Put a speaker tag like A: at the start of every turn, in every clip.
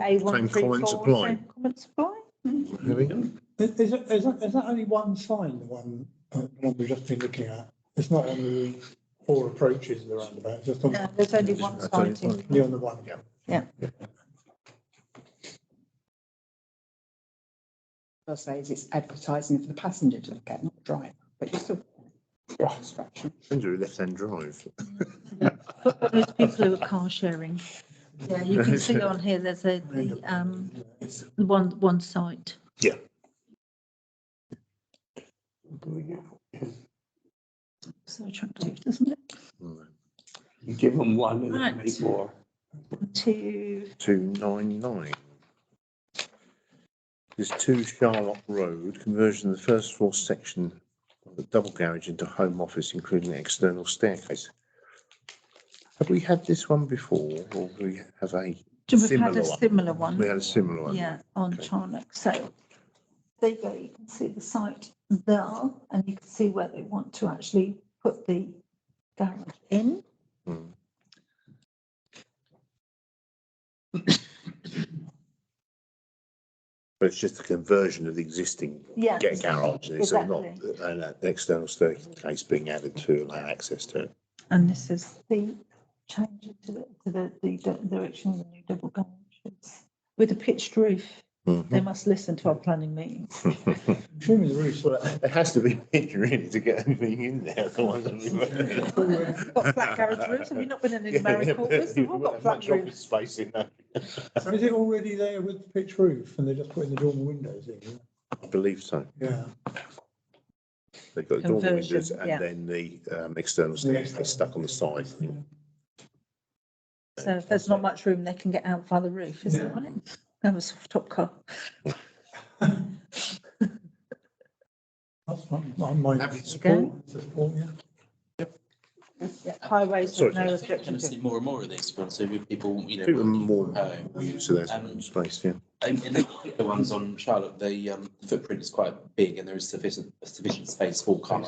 A: A one
B: Same
A: three four.
B: comments apply.
A: Comments apply. Mm.
B: There we go.
C: Is, is, it- is that, is that only one sign, the one, uh, the one we've just been looking at? It's not on the four approaches to the roundabout, it's just on,
A: No, There's only one
B: That's
A: side.
B: only
A: to it.
C: only on the one, yeah.
D: I'll say is it's advertising for the passenger to look at, not the driver, but you still. Instruction.
B: Andrew, left hand drive.
A: But for those people who are car sharing, yeah, you can see on here, there's a, the, um,
C: It's-
A: one, one site. So attractive, doesn't it?
B: Mm.
E: You give them one and then
A: Right.
E: make more.
A: Two,
B: Two nine nine. There's two Charlotte Road, conversion of the first floor section of the double garage into home office, including an external staircase. Have we had this one before, or we have a,
A: do we've had
B: Similar one.
A: a similar
B: we
A: one,
B: had a similar one?
A: Um, yeah, on
B: Okay.
A: Charnock, so. There you go, you can see the site there, and you can see where they want to actually put the garage in.
B: Hmm. But it's just a conversion of the existing
A: Yeah.
B: get garage, it's not
A: Exactly.
B: an an external staircase being added to allow access to it.
A: And this is the change to the, to the, the di- direction of the new double garage. It's With a pitched roof,
B: Mm-hmm.
A: they
B: Hmm.
A: must listen to our planning meetings.
C: Surely the roof's
B: Well, it has to be pitched really to get anything in there, otherwise. it'll be-
A: Got flat garage roofs, have you not been in any
B: Yeah,
A: married
B: but
A: quarters? They've
B: you've
A: all
B: got
A: got
B: much
A: flat
B: office
A: roofs.
B: Space in that,
C: So is it already there with the pitch roof and they're just putting the dormer windows in?
B: I believe so.
C: Yeah.
B: They've got dormer
A: Conversion,
B: windows
A: yeah.
B: and then the um, external
C: The
B: staircase stuck on the side.
A: So if there's not much room, they can get out via the roof, isn't it?
C: Yeah.
A: right? That was top car.
C: That's my, my, my
B: Happy to
C: support, support, yeah.
A: Yeah, highways
B: Sorry,
A: with no
B: yes.
A: objection
F: going to
A: to.
F: see more and more of these ones, so with people, you know.
B: People are more
F: Oh.
B: used to that
F: Um,
B: space, yeah.
F: In in the particular ones on Charlotte, the um, footprint is quite big and there is sufficient, sufficient space for cars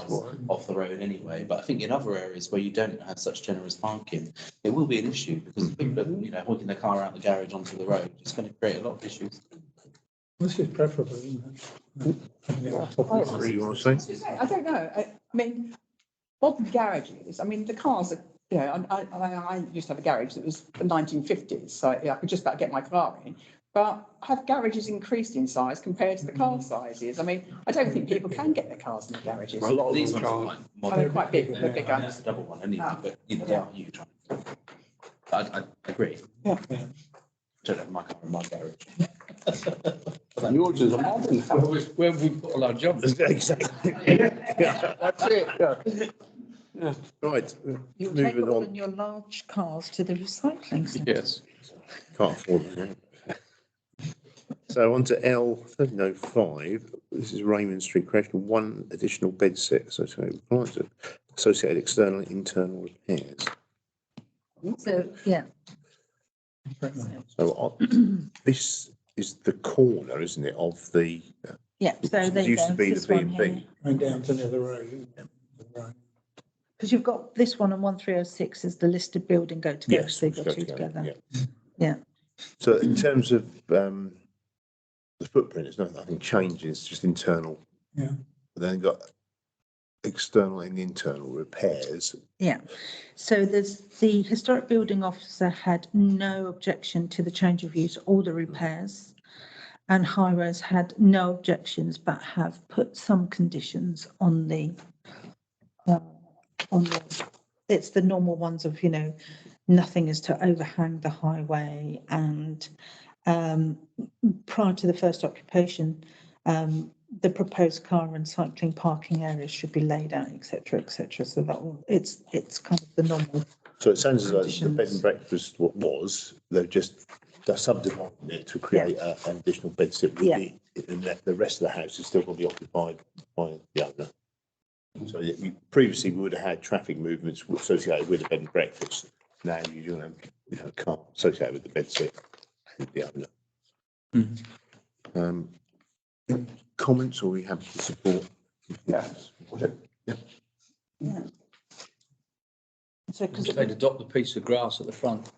F: off the road anyway. But I think in other areas where you don't have such generous parking, it will be an issue because people are, you know, hooking their car out the garage onto the road. It's going to create a lot of issues.
C: This is preferable, isn't it? Yeah, top
A: Oh.
C: of the
B: What do you want to say?
D: I don't know, I, I mean, modern garages, I mean, the cars are, you know, and I, and I, I used to have a garage that was the nineteen fifties, so I I could just about get my car in. But have garages increased in size compared to the
E: Mm.
D: car sizes? I mean, I don't think people can get their cars in the garages.
E: A lot of
F: These
E: them
F: ones
E: can't.
F: are quite
D: Oh, they're
F: modern.
D: quite big, they're big,
F: Yeah,
D: um,
F: That's a double one anyway,
D: Ah.
F: but you know, they are huge. I, I agree.
D: Yeah.
F: Don't have my car in my garage.
E: Yours is a modern.
G: Where where we put all our jobs.
B: Exactly.
E: That's it, yeah.
B: Right,
A: You'll take
B: moving
A: all
B: on.
A: of your large cars to the recycling centre.
G: Yes.
B: Can't afford them. yeah. So on to L thirteen oh five, this is Raymond Street, creation of one additional bed set associated with clients, associated external and internal repairs.
A: So, yeah,
C: preference.
B: So on- this is the corner, isn't it, of the,
A: yeah, so
B: It
A: there you
B: used
A: go.
B: to be the B&B.
C: And down to the other road. isn't it? Right.
A: Because you've got this one on one three oh six is the listed building go together,
B: yes.
A: so you've got
B: go
A: two
B: together,
A: together.
B: yeah.
A: Yeah.
B: So in terms of um, the footprint, it's not, nothing changes, just internal.
C: Yeah.
B: Then got external and internal repairs.
A: Yeah, so there's, the historic building officer had no objection to the change of use or the repairs. And Highways had no objections, but have put some conditions on the, uh, on the, it's the normal ones of, you know, nothing is to overhang the highway and, um, prior to the first occupation, um, the proposed car and cycling parking areas should be laid out, et cetera, et cetera. So that will, it's, it's kind of the normal.
B: So it sounds as though the bed
A: Conditions.
B: and breakfast what was, they've just, they're subdividing it to create a- an additional bed sit with
A: Yeah.
B: the, and that the rest of the house is still going to be occupied by the owner. So that you previously would have had traffic movements associated with the bed and breakfast. Now you're going to have, you know, car associated with the bed sit with the owner.
A: Mm-hmm.
B: Um, comments or we have to support?
E: Yeah.
A: So, because
G: They'd adopt the piece of grass at the front.